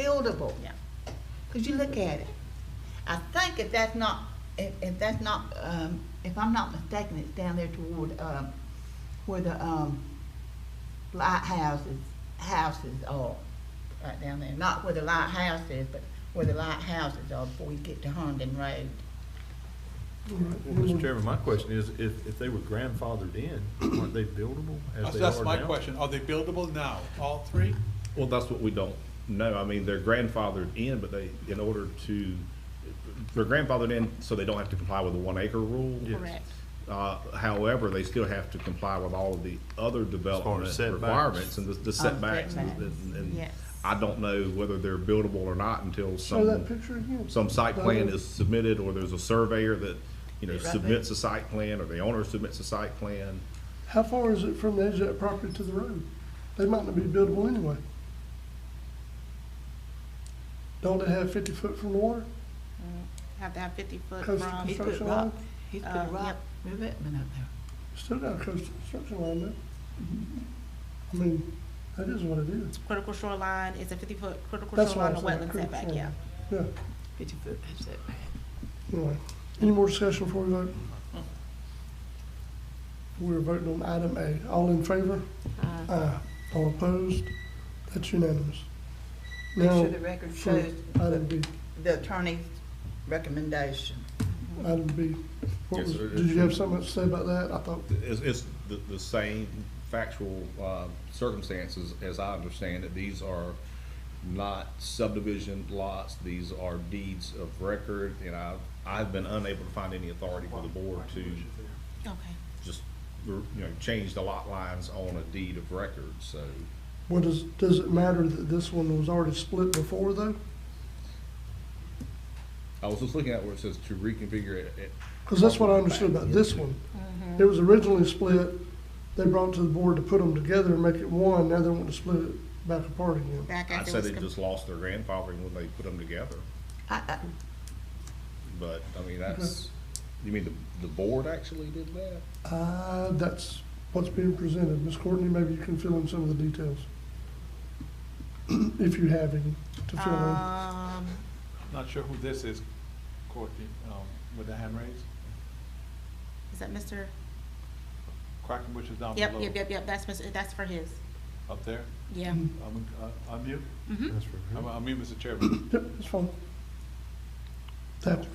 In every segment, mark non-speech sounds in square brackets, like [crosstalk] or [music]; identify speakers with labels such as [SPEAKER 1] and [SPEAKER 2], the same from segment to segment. [SPEAKER 1] buildable.
[SPEAKER 2] Yeah.
[SPEAKER 1] Cause you look at it. I think if that's not, if, if that's not, um, if I'm not mistaken, it's down there toward, um, where the, um, lighthouses, houses are, right down there. Not where the lighthouse is, but where the lighthouses are before you get to Herndon Road.
[SPEAKER 3] Well, Mr. Chairman, my question is, if, if they were grandfathered in, aren't they buildable as
[SPEAKER 4] That's,
[SPEAKER 3] they are now?
[SPEAKER 4] that's my question. Are they buildable now, all three?
[SPEAKER 5] Well, that's what we don't know. I mean, they're grandfathered in, but they, in order to, they're grandfathered in so they don't have to comply with the one acre rule.
[SPEAKER 3] Yes.
[SPEAKER 2] Correct.
[SPEAKER 5] Uh, however, they still have to comply with all of the other development
[SPEAKER 3] setbacks.
[SPEAKER 5] requirements and the- the setbacks. and-
[SPEAKER 1] setbacks.
[SPEAKER 5] and- and
[SPEAKER 2] Yes.
[SPEAKER 5] I don't know whether they're buildable or not until
[SPEAKER 6] Show that
[SPEAKER 5] some,
[SPEAKER 6] picture again.
[SPEAKER 5] some site plan
[SPEAKER 6] Right.
[SPEAKER 5] is submitted or there's a surveyor that, you know,
[SPEAKER 1] Right there.
[SPEAKER 5] submits a site plan or the owner submits a site plan.
[SPEAKER 6] How far is it from the edge of that property to the road? They might not be buildable anyway. Don't they have fifty foot from the water?
[SPEAKER 2] Have to have fifty foot
[SPEAKER 6] Cause-
[SPEAKER 2] from,
[SPEAKER 1] He's put
[SPEAKER 6] Construction
[SPEAKER 1] rock,
[SPEAKER 6] line?
[SPEAKER 1] he's put
[SPEAKER 2] Uh,
[SPEAKER 1] a rock revetment up there.
[SPEAKER 6] Still got a coast construction line there. I mean, that is what it is.
[SPEAKER 2] critical shoreline, it's a fifty foot critical
[SPEAKER 6] That's why
[SPEAKER 2] shoreline,
[SPEAKER 6] I'm
[SPEAKER 2] or
[SPEAKER 6] saying.
[SPEAKER 2] wetland
[SPEAKER 6] critical
[SPEAKER 2] setback, yeah.
[SPEAKER 6] shoreline. Yeah,
[SPEAKER 1] Fifty foot, that's it.
[SPEAKER 6] anyway. Any more discussion before we vote? We're voting on item A. All in favor? Aye. All opposed? That's unanimous.
[SPEAKER 1] Make
[SPEAKER 6] Now,
[SPEAKER 1] sure the record shows
[SPEAKER 6] Item B,
[SPEAKER 1] the attorney's recommendation.
[SPEAKER 6] item B. What
[SPEAKER 5] Yes,
[SPEAKER 6] was,
[SPEAKER 5] sir.
[SPEAKER 6] did you have something to say about that? I thought,
[SPEAKER 5] It's, it's the, the same factual, uh, circumstances as I understand it. These are not subdivision lots. These are deeds of record and I've, I've been unable to find any authority for the board to
[SPEAKER 2] Okay.
[SPEAKER 5] just, you know, change the lot lines on a deed of record, so.
[SPEAKER 6] what does, does it matter that this one was already split before though?
[SPEAKER 5] I was just looking at where it says to reconfigure it, it,
[SPEAKER 6] Cause that's what I understood about this one. It was originally split, they brought it to the board to put them together and make it one, now they want to split it back apart again.
[SPEAKER 2] Back
[SPEAKER 5] I'd
[SPEAKER 2] after
[SPEAKER 5] say
[SPEAKER 2] it was
[SPEAKER 5] they
[SPEAKER 2] com-
[SPEAKER 5] just lost their grandfathering when they put them together.
[SPEAKER 1] I, I,
[SPEAKER 5] But, I mean, that's, you mean the, the board actually did that?
[SPEAKER 6] Uh, that's what's being presented. Ms. Courtney, maybe you can fill in some of the details. [clears throat] If you have any to fill in.
[SPEAKER 2] Um,
[SPEAKER 4] Not sure who this is, Courtney, um, with the hand raised.
[SPEAKER 2] is that Mr.?
[SPEAKER 4] Quackenbush is down
[SPEAKER 2] Yep,
[SPEAKER 4] below,
[SPEAKER 2] yep, yep, yep, that's Mr., that's for his,
[SPEAKER 4] up there.
[SPEAKER 2] yeah.
[SPEAKER 4] Um, uh, Unmute,
[SPEAKER 2] Mm-hmm.
[SPEAKER 3] That's for
[SPEAKER 4] I'm, I'm mute, Mr. Chairman.
[SPEAKER 6] Yep, that's fine. That would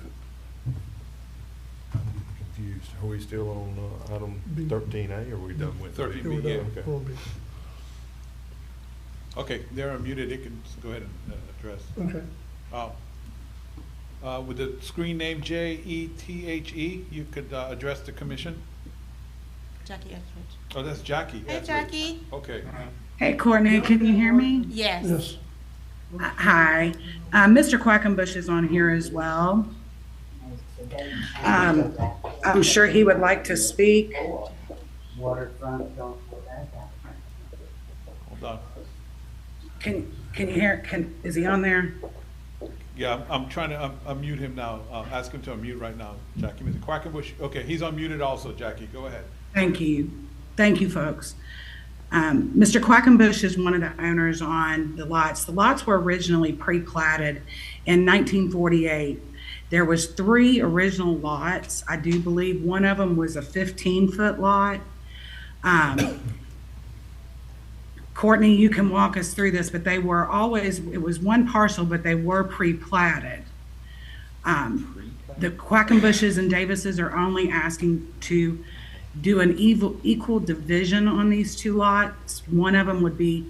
[SPEAKER 3] Confused. Are we still on, uh, item
[SPEAKER 6] B.
[SPEAKER 3] thirteen A, or are we done with?
[SPEAKER 4] 13B,
[SPEAKER 3] B?
[SPEAKER 4] yeah.
[SPEAKER 3] Okay.
[SPEAKER 6] will be,
[SPEAKER 4] Okay, they're unmuted, they can s- go ahead and uh, address.
[SPEAKER 6] okay.
[SPEAKER 4] Uh, uh, With the screen name J E T H E, you could uh, address the commission.
[SPEAKER 2] Jackie Etheridge.
[SPEAKER 4] Oh, that's Jackie.
[SPEAKER 2] Hey,
[SPEAKER 4] that's right.
[SPEAKER 2] Jackie.
[SPEAKER 4] Okay.
[SPEAKER 7] Hey, Courtney, can you hear me?
[SPEAKER 2] Yes.
[SPEAKER 6] Yes,
[SPEAKER 7] Hi. Uh, Mr. Quackenbush is on here as well. Um, I'm sure he would like to speak.
[SPEAKER 8] waterfront, don't put that out.
[SPEAKER 4] Hold on.
[SPEAKER 7] Can, can you hear, can, is he on there?
[SPEAKER 4] Yeah, I'm- I'm trying to um, unmute him now. Uh, Ask him to unmute right now, Jackie. Mr. Quackenbush, okay, he's unmuted also, Jackie. Go ahead.
[SPEAKER 7] Thank you. Thank you, folks. Um, Mr. Quackenbush is one of the owners on the lots. The lots were originally pre-platted in 1948. There was three original lots. I do believe one of them was a 15-foot lot. Um, Courtney, you can walk us through this, but they were always, it was one parcel, but they were pre-platted. Um, The Quackenbushes and Davises are only asking to do an evil, equal division on these two lots. One of them would be,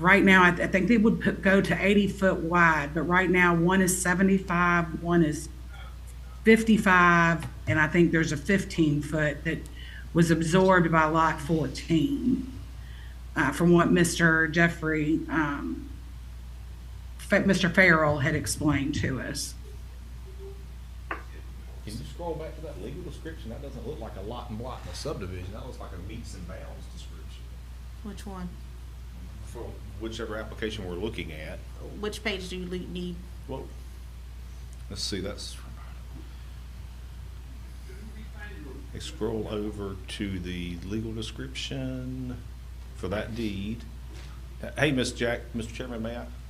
[SPEAKER 7] right now, I, th- I think they would put, go to eighty foot wide, but right now, one is seventy-five, one is fifty-five, and I think there's a fifteen foot that was absorbed by lot fourteen. Uh, from what Mr. Jeffrey, um, Fa- Mr. Farrell had explained to us.
[SPEAKER 5] Can you scroll back to that legal description? That doesn't look like a lot and block in a subdivision. That looks like a meets and bounds description.
[SPEAKER 2] Which one?
[SPEAKER 5] For whichever application we're looking at.
[SPEAKER 2] Which page do you le- need?
[SPEAKER 5] Well. Let's see, that's. They scroll over to the legal description for that deed, Hey, Ms. Jack, Mr. Chairman, may I?